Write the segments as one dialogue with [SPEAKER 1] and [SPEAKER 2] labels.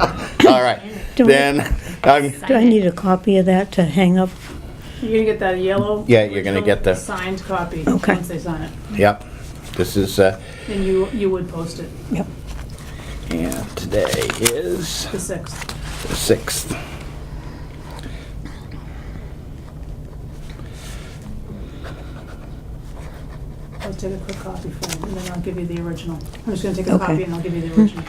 [SPEAKER 1] all right.
[SPEAKER 2] Do I-
[SPEAKER 1] Then, um,
[SPEAKER 2] Do I need a copy of that to hang up?
[SPEAKER 3] You're gonna get that yellow.
[SPEAKER 1] Yeah, you're gonna get the-
[SPEAKER 3] Signed copy,
[SPEAKER 2] Okay.
[SPEAKER 3] once they sign it,
[SPEAKER 1] yep, this is, uh,
[SPEAKER 3] and you, you would post it
[SPEAKER 2] Yep.
[SPEAKER 1] and today is
[SPEAKER 3] the sixth.
[SPEAKER 1] the sixth.
[SPEAKER 3] I'll take a quick copy for you, and then I'll give you the original. I'm just gonna take a
[SPEAKER 2] Okay.
[SPEAKER 3] copy and I'll give you the original.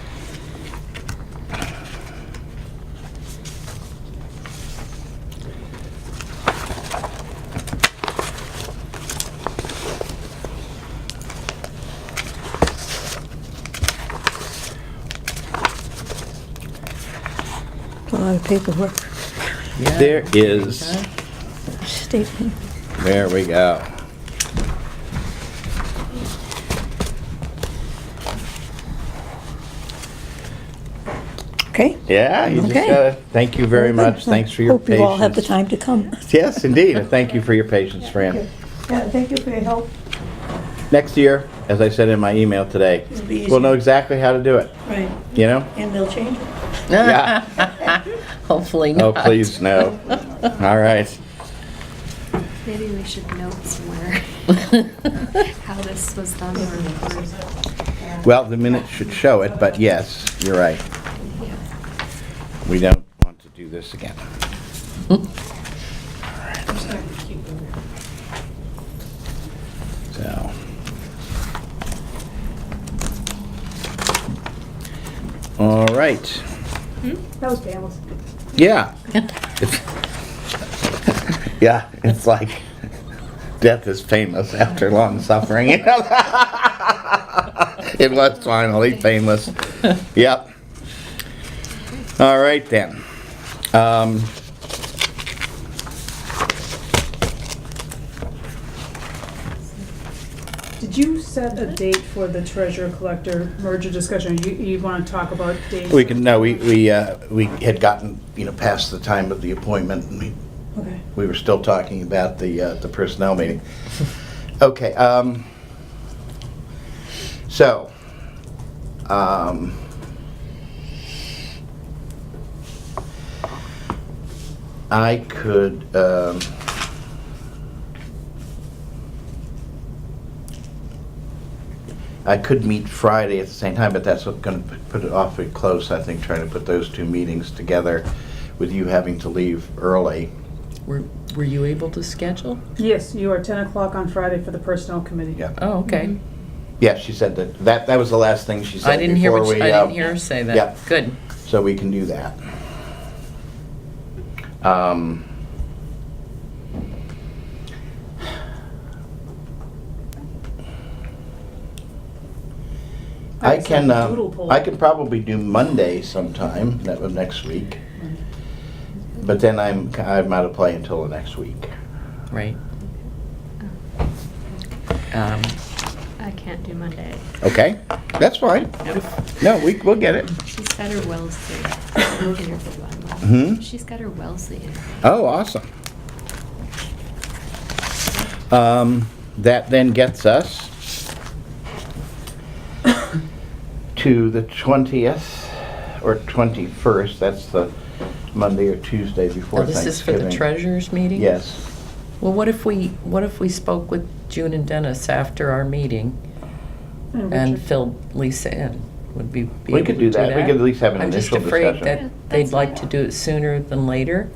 [SPEAKER 2] A lot of paperwork.
[SPEAKER 1] There is,
[SPEAKER 2] Statement.
[SPEAKER 1] there we go.
[SPEAKER 2] Okay?
[SPEAKER 1] Yeah, you just
[SPEAKER 2] Okay.
[SPEAKER 1] gotta, thank you very
[SPEAKER 2] Well,
[SPEAKER 1] much,
[SPEAKER 2] good.
[SPEAKER 1] thanks for your
[SPEAKER 2] Hope you all have the
[SPEAKER 1] patience.
[SPEAKER 2] time to come.
[SPEAKER 1] Yes, indeed, and thank you for your patience, Fran.
[SPEAKER 2] Yeah, thank you for your help.
[SPEAKER 1] Next year, as I said in my email today,
[SPEAKER 2] It'll be
[SPEAKER 1] we'll know
[SPEAKER 2] easier.
[SPEAKER 1] exactly how to do it,
[SPEAKER 2] Right,
[SPEAKER 1] you know?
[SPEAKER 2] and they'll change it.
[SPEAKER 1] Yeah.
[SPEAKER 4] Hopefully
[SPEAKER 1] Oh,
[SPEAKER 4] not.
[SPEAKER 1] please, no. All right.
[SPEAKER 5] Maybe we should note somewhere how this was done or recorded.
[SPEAKER 1] Well, the minutes should show it, but yes, you're right. We don't want to do this again.
[SPEAKER 3] I'm just gonna keep it over here.
[SPEAKER 1] So. All right.
[SPEAKER 3] That was Pam's.
[SPEAKER 1] Yeah. yeah, it's like death is painless after long suffering. it was finally painless. Yep. All right then. Um,
[SPEAKER 3] Did you set a date for the treasurer collector merger discussion? You, you wanna talk about dates?
[SPEAKER 1] we can no, we we uh, we had gotten you know past the time of the appointment, and we
[SPEAKER 3] Okay.
[SPEAKER 1] we were still talking about the, uh, the personnel meeting. Okay, um, so, um, I could, um, I could meet Friday at the same time, but that's gonna p- put it awfully close, I think, trying to put those two meetings together with you having to leave early.
[SPEAKER 4] Were, were you able to schedule?
[SPEAKER 3] Yes, you are ten o'clock on Friday for the personnel committee.
[SPEAKER 1] Yeah.
[SPEAKER 4] Oh, okay.
[SPEAKER 1] Yeah, she said that, that, that was the last thing she said.
[SPEAKER 4] I didn't hear
[SPEAKER 1] before
[SPEAKER 4] what, you-
[SPEAKER 1] we,
[SPEAKER 4] I
[SPEAKER 1] uh,
[SPEAKER 4] didn't hear her say that.
[SPEAKER 1] yeah.
[SPEAKER 4] Good.
[SPEAKER 1] So we can do that. Um, I
[SPEAKER 3] It's like
[SPEAKER 1] can,
[SPEAKER 3] a
[SPEAKER 1] uh,
[SPEAKER 3] doodle poll.
[SPEAKER 1] I can probably do Monday sometime, that was next week. But then I'm, I'm out of play until the next week.
[SPEAKER 4] Right. Um,
[SPEAKER 5] I can't do Monday.
[SPEAKER 1] Okay, that's fine. No, we, we'll get it.
[SPEAKER 5] She's got her Wellesley interview on
[SPEAKER 1] Hmm?
[SPEAKER 5] Monday. She's got her Wellesley interview.
[SPEAKER 1] Oh, awesome. Um, that then gets us to the 20th or 21st. That's the Monday or Tuesday
[SPEAKER 4] now
[SPEAKER 1] before
[SPEAKER 4] Oh, this
[SPEAKER 1] Thanksgiving.
[SPEAKER 4] is for the treasurer's meeting?
[SPEAKER 1] Yes.
[SPEAKER 4] Well, what if we, what if we spoke with June and Dennis after our meeting and
[SPEAKER 3] Richard.
[SPEAKER 4] filled Lisa in? Would be. be
[SPEAKER 1] We
[SPEAKER 4] able
[SPEAKER 1] could
[SPEAKER 4] to
[SPEAKER 1] do that. We could at least have an initial
[SPEAKER 4] I'm just
[SPEAKER 1] discussion.
[SPEAKER 4] afraid
[SPEAKER 5] Yeah,
[SPEAKER 4] that they'd
[SPEAKER 5] that's
[SPEAKER 4] like to
[SPEAKER 5] fine.
[SPEAKER 4] do it sooner than later.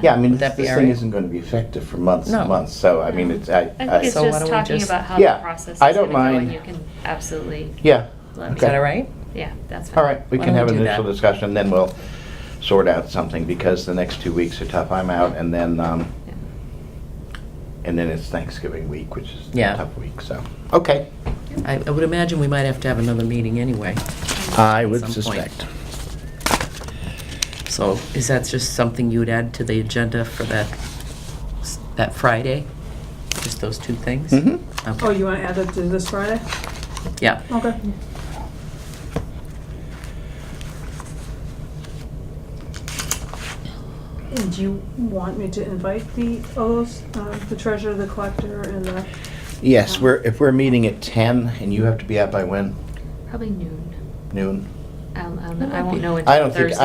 [SPEAKER 1] Yeah, I mean,
[SPEAKER 4] Would
[SPEAKER 1] this
[SPEAKER 4] that be
[SPEAKER 1] this
[SPEAKER 4] all
[SPEAKER 1] thing
[SPEAKER 4] right?
[SPEAKER 1] isn't going to be effective for months
[SPEAKER 4] No.
[SPEAKER 1] and months, so I mean, it's, I,
[SPEAKER 5] I think it's
[SPEAKER 4] So why
[SPEAKER 5] just
[SPEAKER 4] don't we
[SPEAKER 5] talking
[SPEAKER 4] just-
[SPEAKER 5] about how the
[SPEAKER 1] Yeah,
[SPEAKER 5] process is
[SPEAKER 1] I
[SPEAKER 5] gonna
[SPEAKER 1] don't
[SPEAKER 5] go and
[SPEAKER 1] mind.
[SPEAKER 5] you can absolutely,
[SPEAKER 1] yeah.
[SPEAKER 5] Let me-
[SPEAKER 4] Is that all right?
[SPEAKER 5] yeah, that's fine.
[SPEAKER 1] All right, we
[SPEAKER 4] Why
[SPEAKER 1] can
[SPEAKER 4] don't
[SPEAKER 1] have
[SPEAKER 4] we
[SPEAKER 1] an
[SPEAKER 4] do
[SPEAKER 1] initial
[SPEAKER 4] that?
[SPEAKER 1] discussion, then we'll sort out something, because the next two weeks are tough. I'm out, and then, um,
[SPEAKER 5] Yeah.
[SPEAKER 1] and then it's Thanksgiving week, which is a
[SPEAKER 4] Yeah.
[SPEAKER 1] tough week, so, okay.
[SPEAKER 4] I, I would imagine we might have to have another meeting anyway.
[SPEAKER 1] I
[SPEAKER 4] At
[SPEAKER 1] would
[SPEAKER 4] some point.
[SPEAKER 1] suspect.
[SPEAKER 4] So is that just something you'd add to the agenda for that, s- that Friday? Just those two things?
[SPEAKER 1] Mhm.
[SPEAKER 3] Oh,
[SPEAKER 4] Okay,
[SPEAKER 3] you wanna add that to this Friday?
[SPEAKER 4] yeah.
[SPEAKER 3] Okay. And do you want me to invite the, all those, uh, the treasurer, the collector, and the,
[SPEAKER 1] Yes, we're, if we're meeting at 10, and you have to be out by when?
[SPEAKER 5] Probably noon.
[SPEAKER 1] Noon?
[SPEAKER 5] I'll, I'll, I
[SPEAKER 4] might be-
[SPEAKER 5] won't know
[SPEAKER 1] I
[SPEAKER 5] until
[SPEAKER 1] don't think-
[SPEAKER 5] Thursday.